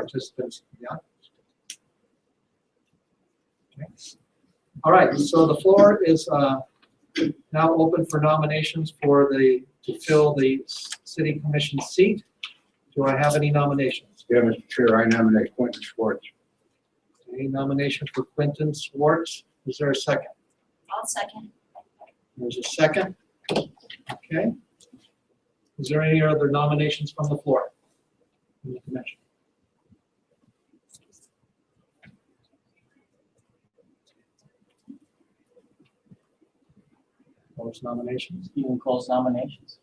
participants in the audience. Okay. All right, so the floor is uh, now open for nominations for the, to fill the s- city commission seat. Do I have any nominations? Yeah, Mr. Chair, I nominate Quentin Schwartz. Any nominations for Quentin Schwartz? Is there a second? I'll second. There's a second. Okay. Is there any other nominations from the floor? From the commission? Close nominations. You can close nominations.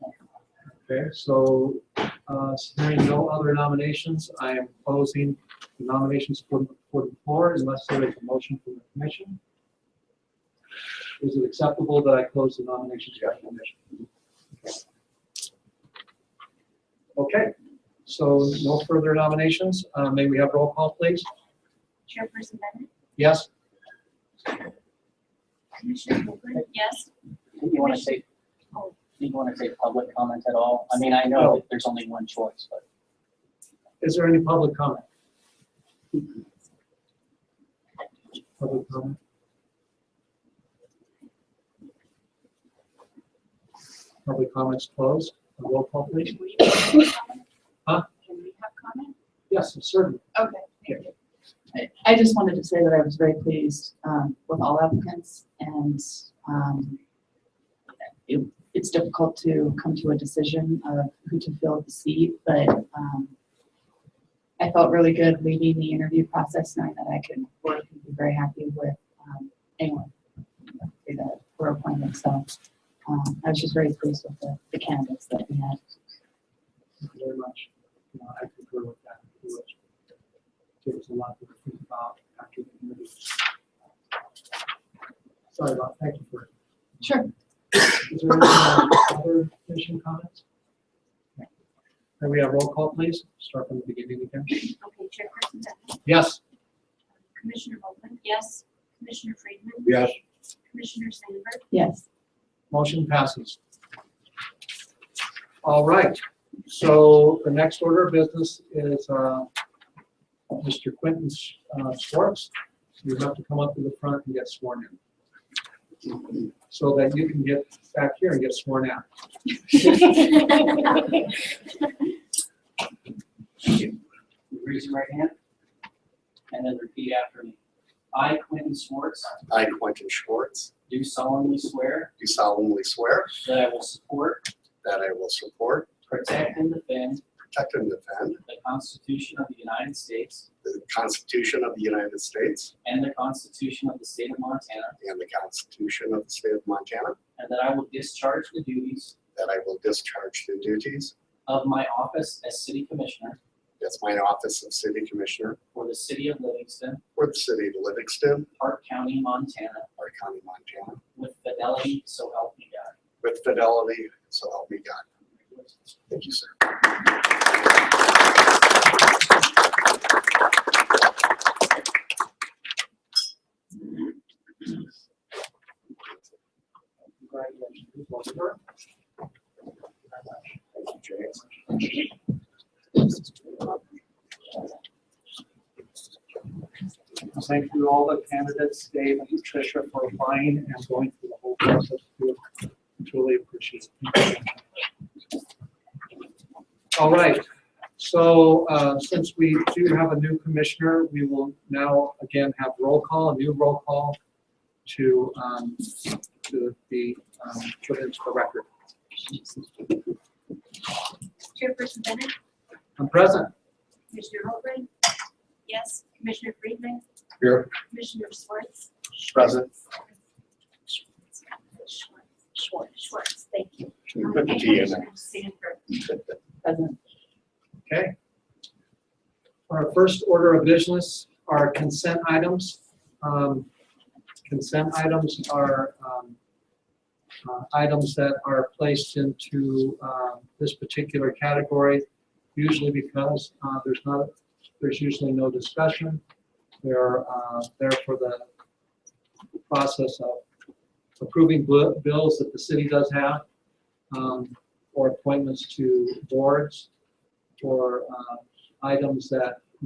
Okay, so, uh, hearing no other nominations, I am closing the nominations for, for the floor unless there is a motion from the commission. Is it acceptable that I close the nominations for the commission? Okay, so no further nominations. Uh, may we have roll call, please? Chairperson Bennett? Yes? Commissioner Copeland? Yes. Do you want to say, do you want to say public comment at all? I mean, I know that there's only one choice, but Is there any public comment? Public comment? Public comments closed. A Roll call, please. Can we have comment? Huh? Can we have comment? Yes, certainly. Okay, thank you. I- I just wanted to say that I was very pleased um, with all applicants and um, it- it's difficult to come to a decision of who to fill the seat, but um, I felt really good leading the interview process, knowing that I could work and be very happy with um, anyone that were appointed. So um, I was just very pleased with the- the candidates that we had. Thank you very much. Uh, I concur with that. It was- There was a lot to think about after the interview. Sorry about, thank you for. Sure. Is there any uh, other commission comments? Can we have roll call, please? Start from the beginning again. Okay, Chairperson Bennett? Yes. Commissioner Copeland? Yes. Commissioner Friedman? Yes. Commissioner Sandberg? Yes. Motion passes. All right, so the next order of business is uh, Mr. Quentin uh, Schwartz. You have to come up to the front and get sworn in. So that you can get back here and get sworn out. raise your right hand and then repeat after me. I, Quentin Schwartz, I, Quentin Schwartz, do solemnly swear do solemnly swear that I will support, that I will support, protect, and defend protect, and defend the Constitution of the United States the Constitution of the United States and the Constitution of the State of Montana, and the Constitution of the State of Montana, and that I will discharge the duties that I will discharge the duties of my office as City Commissioner as my office of City Commissioner for the City of Livingston, for the City of Livingston, Park County, Montana, our county, Montana, with fidelity, so help me uh, God. with fidelity, so help me God. Thank you, sir. Congratulations. Well done. Thank you, James. Thank you all the candidates, Dave and Tricia, for applying and going through the whole process. We Truly appreciate it. All right, so uh, since we do have a new commissioner, we will now again have roll call, a new roll call to, um, to be um, put into the record. Chairperson Bennett? I'm present. Commissioner Copeland? Yes. Commissioner Friedman? Here. Commissioner Schwartz? Present. Schwartz, Schwartz, thank you. Put the T in there. And Commissioner Sandberg. Present. Okay. Our first order of business are consent items. Um, Consent items are um, uh, items that are placed into um, this particular category, usually because uh, there's not, there's usually no discussion. They're uh, there for the process of approving bu- bills that the city does have um, or appointments to boards or uh, items that